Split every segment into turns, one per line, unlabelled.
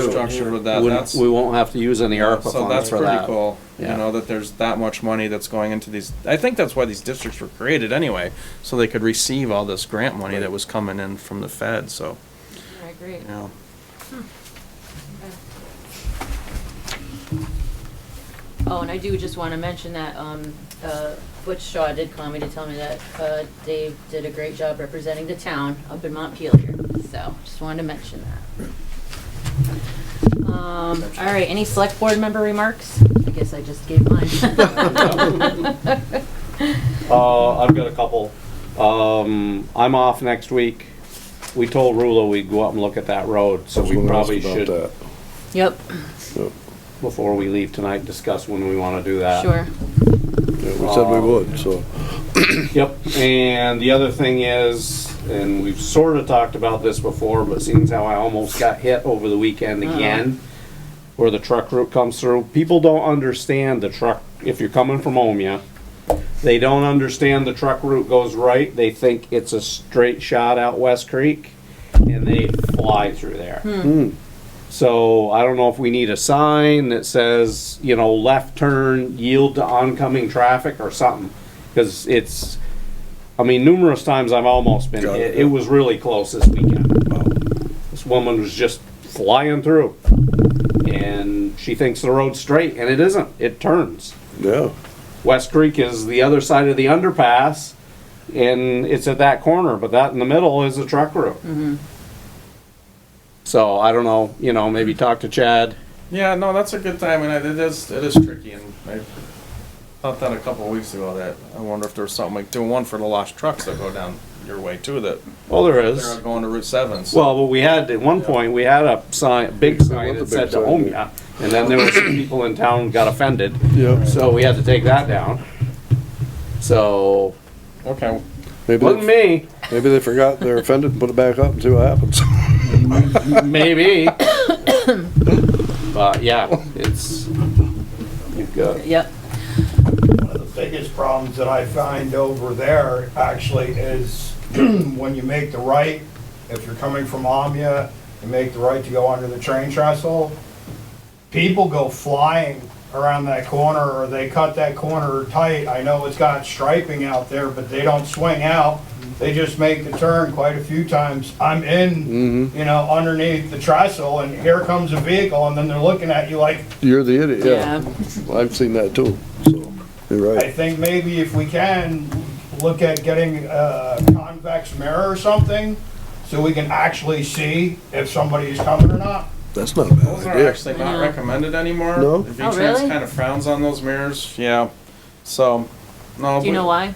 infrastructure for that,
Wouldn't-
that's,
We won't have to use any ARPA funds for
so
that.
that's pretty cool. You
Yeah.
know, that there's that much money that's going into these, I think that's why these districts were created anyway, so they could receive all this grant money that was coming in from the Fed, so,
I agree.
you know.
Oh, and I do just want to mention that, um, uh, Butch Shaw did call me to tell me that, uh, Dave did a great job representing the town up in Montpelier, so just wanted to mention that. Um, all right, any select board member remarks? I guess I just gave mine.
Uh, I've got a couple. Um, I'm off next week. We told Rulo we'd go up and look at that road, so we probably should,
Yep,
before we leave tonight, discuss when we wanna do that.
sure.
We said we would, so.
Yep, and the other thing is, and we've sort of talked about this before, but seems how I almost got hit over the weekend again, where the truck route comes through, people don't understand the truck, if you're coming from Omea, they don't understand the truck route goes right, they think it's a straight shot out West Creek, and they fly through there. So I don't know if we need a sign that says, you know, left turn, yield to oncoming traffic or something. Cause it's, I mean, numerous times I've almost been,
Got
it,
it.
it was really close this weekend. This woman was just flying through. And she thinks the road's straight and it isn't, it turns.
Yeah,
West Creek is the other side of the underpass, and it's at that corner, but that in the middle is a truck route. So I don't know, you know, maybe talk to Chad.
Yeah, no, that's a good time, and I- it is, it is tricky, and I thought that a couple of weeks ago, that I wonder if there's something like doing one for the lost trucks that go down your way too, that
Well, there
they're
is.
going to Route Seven, so.
Well, but we had, at one point, we had a sign, big sign that said Omea, and then there were some people in town got offended,
yeah.
so we had to take that down. So,
Okay,
Maybe,
wasn't
they-
me,
maybe they forgot, they're offended, put it back up and see what happens.
maybe. But yeah, it's, you've got.
Yep,
One of the biggest problems that I find over there actually is when you make the right, if you're coming from Amia, you make the right to go under the train trestle, people go flying around that corner or they cut that corner tight. I know it's got striping out there, but they don't swing out. They just make the turn quite a few times. I'm in, you know, underneath the trestle and here comes a vehicle and then they're looking at you like,
You're the idiot,
yeah.
yeah. I've seen that too, so, you're
I
right.
think maybe if we can, look at getting a convex mirror or something, so we can actually see if somebody is coming or not.
That's not a
Those
bad
are
idea.
actually not recommended anymore.
No?
The
Oh,
V-Trans
really?
kind of frowns on those mirrors, yeah. So, no.
Do you
but
know why?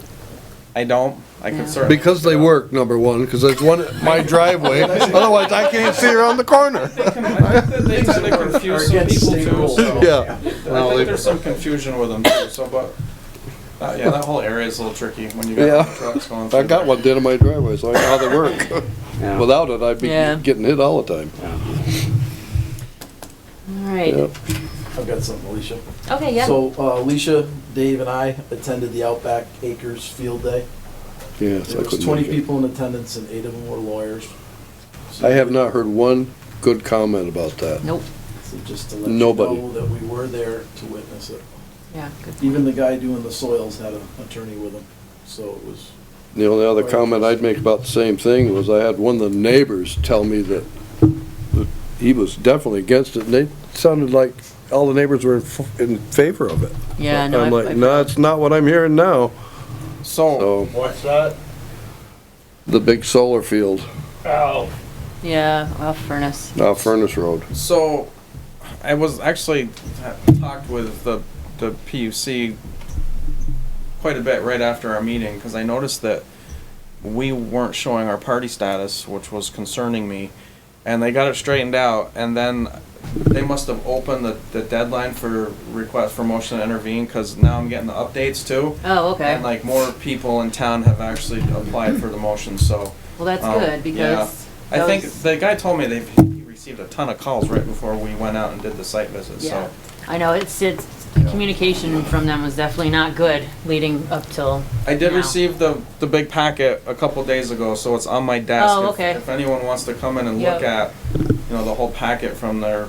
I don't. I
Yeah.
could certainly.
Because they work, number one, because there's one at my driveway, otherwise I can't see around the corner.
I think that they tend to confuse some people too, so.
Yeah,
I think there's some confusion with them too, so, but, uh, yeah, that whole area is a little tricky when you
Yeah.
got trucks going through.
I got
there.
one dead in my driveway, so I know how they work.
Yeah.
Without it, I'd be
Yeah.
getting hit all the time.
All right,
Yep.
I've got something, Alicia.
okay, yeah,
So uh, Alicia, Dave, and I attended the Outback Acres Field Day.
Yes, I
There was
couldn't
twenty
make it.
people in attendance, and eight of them were lawyers. So-
I have not heard one good comment about that.
nope,
so Just to let you
Nobody.
know that we were there to witness it.
yeah, good.
Even the guy doing the soils had an attorney with him, so it was.
The only other comment I'd make about the same thing was I had one of the neighbors tell me that that he was definitely against it, and they sounded like all the neighbors were in, f- in favor of it.
Yeah, no,
I'm
I- I-
like, no, it's not what I'm hearing now.
So,
So,
What's that?
the big solar field,
Oh,
yeah, well, furnace.
now Furnace Road.
so, I was actually ha- talked with the, the PUC quite a bit right after our meeting, cause I noticed that we weren't showing our party status, which was concerning me. And they got it straightened out, and then they must have opened the, the deadline for request for motion to intervene, cause now I'm getting the updates too.
Oh, okay,
And like more people in town have actually applied for the motion, so.
well, that's
um,
good, because.
I think
those-
the guy told me they he received a ton of calls right before we went out and did the site visit,
Yeah,
so.
I know, it's, it's, the communication from them was definitely not good leading up till,
I did
Now.
receive the, the big packet a couple days ago, so it's on my desk.
Oh,
If-
okay.
If anyone wants to come in and look
Yep.
at, you know, the whole packet from their